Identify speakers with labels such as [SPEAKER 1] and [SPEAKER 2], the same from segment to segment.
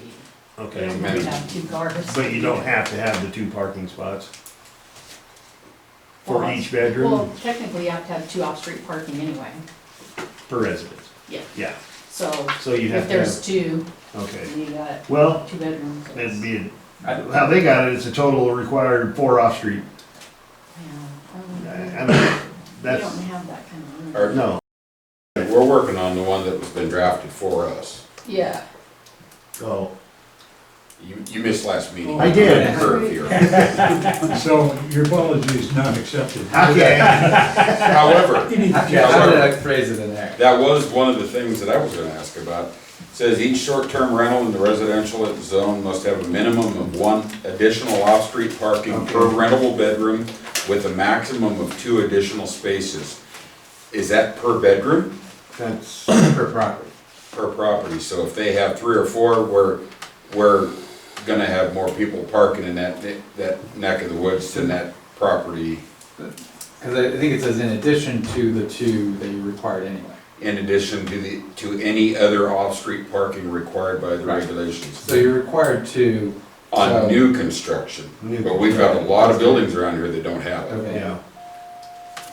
[SPEAKER 1] We
[SPEAKER 2] Okay,
[SPEAKER 1] only have two cars.
[SPEAKER 2] but you don't have to have the two parking spots for
[SPEAKER 1] Well,
[SPEAKER 2] each
[SPEAKER 1] Well,
[SPEAKER 2] bedroom
[SPEAKER 1] technically you have to have two off-street parking anyway,
[SPEAKER 2] per residence?
[SPEAKER 1] Yeah.
[SPEAKER 2] Yeah,
[SPEAKER 1] so
[SPEAKER 2] so you'd
[SPEAKER 1] if
[SPEAKER 2] have to
[SPEAKER 1] there's
[SPEAKER 2] have,
[SPEAKER 1] two,
[SPEAKER 2] okay.
[SPEAKER 1] you got
[SPEAKER 2] Well,
[SPEAKER 1] two bedrooms.
[SPEAKER 2] it'd
[SPEAKER 1] it's-
[SPEAKER 2] be,
[SPEAKER 3] I-
[SPEAKER 2] a- how they got it, it's a total required four off-street.
[SPEAKER 1] yeah,
[SPEAKER 2] I
[SPEAKER 1] I
[SPEAKER 2] I
[SPEAKER 1] don't know.
[SPEAKER 2] mean,
[SPEAKER 1] We
[SPEAKER 2] that's,
[SPEAKER 1] don't have that kind of room.
[SPEAKER 3] Or-
[SPEAKER 2] no,
[SPEAKER 3] We're working on the one that was been drafted for us.
[SPEAKER 1] Yeah,
[SPEAKER 2] oh,
[SPEAKER 3] You, you missed last meeting.
[SPEAKER 2] I did.
[SPEAKER 3] Curve here.
[SPEAKER 4] So your apology is not accepted.
[SPEAKER 2] okay,
[SPEAKER 3] However,
[SPEAKER 5] Yeah, how did I phrase it in there?
[SPEAKER 3] That was one of the things that I was gonna ask about. Says each short-term rental in the residential zone must have a minimum of one additional off-street parking per rentable bedroom with a maximum of two additional spaces. Is that per bedroom,
[SPEAKER 2] that's,
[SPEAKER 5] Per property.
[SPEAKER 3] per property? So if they have three or four, we're, we're gonna have more people parking in that, ne- that neck of the woods than that property
[SPEAKER 5] Because I I think it says in addition to the two that you required anyway.
[SPEAKER 3] in addition to the, to any other off-street parking required by the
[SPEAKER 5] Right.
[SPEAKER 3] regulations.
[SPEAKER 5] So you're required two. so-
[SPEAKER 3] on new construction.
[SPEAKER 2] New
[SPEAKER 3] But we've got a lot of buildings around here that don't have it.
[SPEAKER 5] Okay,
[SPEAKER 2] yeah,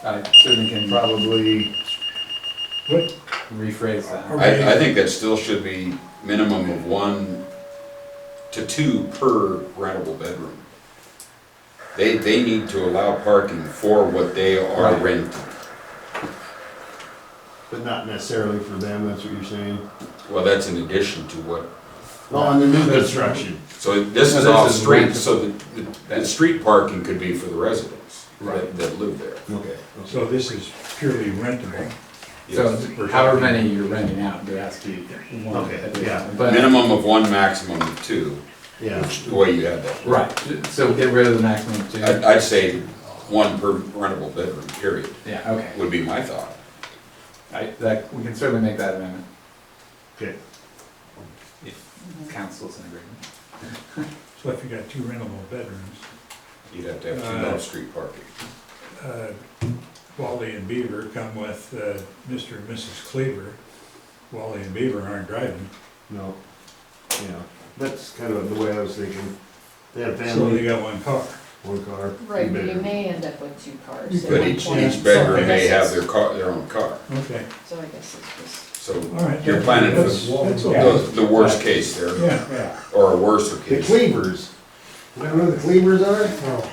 [SPEAKER 5] I certainly can
[SPEAKER 2] probably,
[SPEAKER 4] What,
[SPEAKER 5] rephrase that.
[SPEAKER 3] I, I think that still should be minimum of one to two per rentable bedroom. They, they need to allow parking for what they are
[SPEAKER 5] Right.
[SPEAKER 3] renting.
[SPEAKER 2] but not necessarily for them, that's what you're saying?
[SPEAKER 3] Well, that's in addition to what,
[SPEAKER 2] On the new construction.
[SPEAKER 3] so this
[SPEAKER 5] No,
[SPEAKER 3] is
[SPEAKER 5] this
[SPEAKER 3] off
[SPEAKER 5] is
[SPEAKER 3] street,
[SPEAKER 5] rental.
[SPEAKER 3] so the, the, that street parking could be for the residents that,
[SPEAKER 5] Right.
[SPEAKER 3] that live there.
[SPEAKER 2] Okay.
[SPEAKER 4] so this is purely rentable.
[SPEAKER 5] So
[SPEAKER 3] Yes.
[SPEAKER 5] however many you're renting out, there has to be one
[SPEAKER 2] Okay, yeah.
[SPEAKER 5] additional. But,
[SPEAKER 3] Minimum of one, maximum of two,
[SPEAKER 2] Yeah,
[SPEAKER 3] which, the way you have that.
[SPEAKER 5] right, so get rid of the maximum of
[SPEAKER 3] I'd,
[SPEAKER 5] two.
[SPEAKER 3] I'd say one per rentable bedroom, period,
[SPEAKER 5] Yeah, okay.
[SPEAKER 3] would be my thought.
[SPEAKER 5] I- That, we can certainly make that amendment.
[SPEAKER 2] okay,
[SPEAKER 5] if Council's in agreement.
[SPEAKER 4] So if you got two rentable bedrooms,
[SPEAKER 3] You'd have to have two
[SPEAKER 4] Uh,
[SPEAKER 3] off-street parking.
[SPEAKER 4] uh, Wally and Beaver come with uh, Mr. and Mrs. Cleaver. Wally and Beaver aren't driving,
[SPEAKER 2] no, yeah, that's kind of the way I was thinking. They have
[SPEAKER 4] so they
[SPEAKER 2] family,
[SPEAKER 4] got one car.
[SPEAKER 2] one car.
[SPEAKER 1] right, but you
[SPEAKER 2] bedroom.
[SPEAKER 1] may end up with two cars. at
[SPEAKER 3] But
[SPEAKER 1] one
[SPEAKER 3] each,
[SPEAKER 1] point,
[SPEAKER 3] each
[SPEAKER 1] so
[SPEAKER 3] bedroom
[SPEAKER 1] I
[SPEAKER 3] may
[SPEAKER 1] guess
[SPEAKER 3] have
[SPEAKER 1] it's-
[SPEAKER 3] their car, their own car,
[SPEAKER 4] Okay,
[SPEAKER 1] So I guess it's just,
[SPEAKER 3] so
[SPEAKER 4] all right.
[SPEAKER 3] you're planning for
[SPEAKER 4] That's- that's all.
[SPEAKER 3] the, the worst case there,
[SPEAKER 4] Yeah, yeah.
[SPEAKER 3] or a worser
[SPEAKER 2] The
[SPEAKER 3] case.
[SPEAKER 2] Cleavers. You know who the Cleavers are? Oh.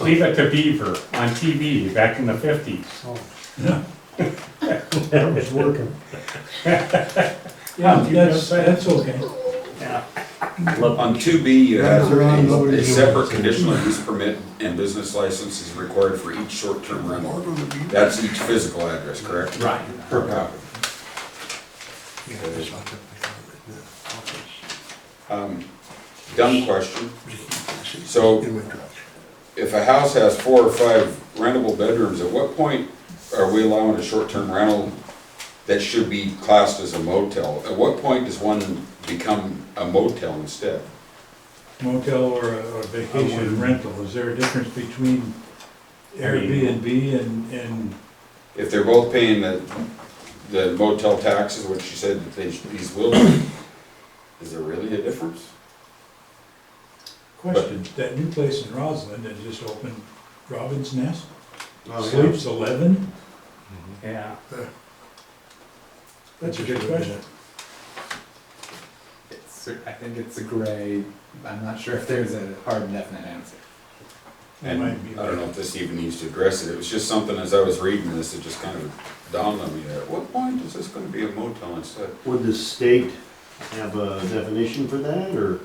[SPEAKER 6] Leave it to Beaver on TV back in the fifties.
[SPEAKER 4] Yeah, that's, that's okay.
[SPEAKER 3] On two B, you have
[SPEAKER 2] They're on
[SPEAKER 3] a- a
[SPEAKER 2] nobody's
[SPEAKER 3] separate conditional use permit and business license is required for each short-term rental. That's each physical address, correct?
[SPEAKER 6] Right.
[SPEAKER 3] Per property. Um, Dumb question. So if a house has four or five rentable bedrooms, at what point are we allowing a short-term rental that should be classed as a motel? At what point does one become a motel instead?
[SPEAKER 4] motel or a or vacation rental, is there a difference between Airbnb and, and,
[SPEAKER 3] If they're both paying the, the motel taxes, which you said that they, these will, be, is there really a difference?
[SPEAKER 4] question, that new place in Roslyn that just opened, Robin's Nest,
[SPEAKER 2] Oh, yeah.
[SPEAKER 4] sleeps eleven?
[SPEAKER 6] Yeah.
[SPEAKER 4] That's a good question.
[SPEAKER 5] It's, I think it's a gray, I'm not sure if there's a hard and definite answer.
[SPEAKER 4] That
[SPEAKER 3] And I
[SPEAKER 4] might be
[SPEAKER 3] don't know if this even needs to address it, it was just something as I was reading this, it just kind of dawned on me, at what point is this gonna be a motel instead?
[SPEAKER 2] Would the state have a definition for that, or?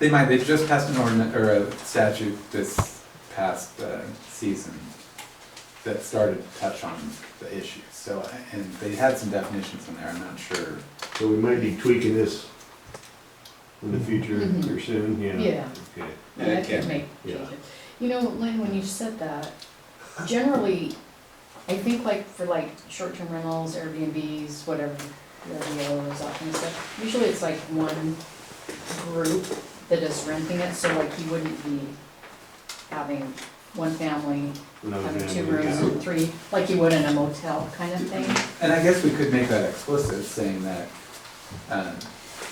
[SPEAKER 5] They might, they just passed an ordinance, or a statute this past uh, season that started to touch on the issue, so, and they had some definitions in there, I'm not sure.
[SPEAKER 2] So we might be tweaking this in the future
[SPEAKER 1] Mhm.
[SPEAKER 2] or soon, yeah?
[SPEAKER 1] Yeah.
[SPEAKER 2] Okay.
[SPEAKER 1] I
[SPEAKER 3] Yeah,
[SPEAKER 1] mean,
[SPEAKER 3] it
[SPEAKER 1] I
[SPEAKER 3] can
[SPEAKER 1] could
[SPEAKER 3] be,
[SPEAKER 1] make
[SPEAKER 2] yeah.
[SPEAKER 1] changes. You know, Lynn, when you said that, generally, I think like for like short-term rentals, Airbnbs, whatever, LDOs, that kind of stuff, usually it's like one group that is renting it, so like you wouldn't be having one family,
[SPEAKER 2] Another
[SPEAKER 1] having two
[SPEAKER 2] family,
[SPEAKER 1] rooms
[SPEAKER 2] yeah.
[SPEAKER 1] and three, like you would in a motel kind of thing.
[SPEAKER 5] And I guess we could make that explicit, saying that um,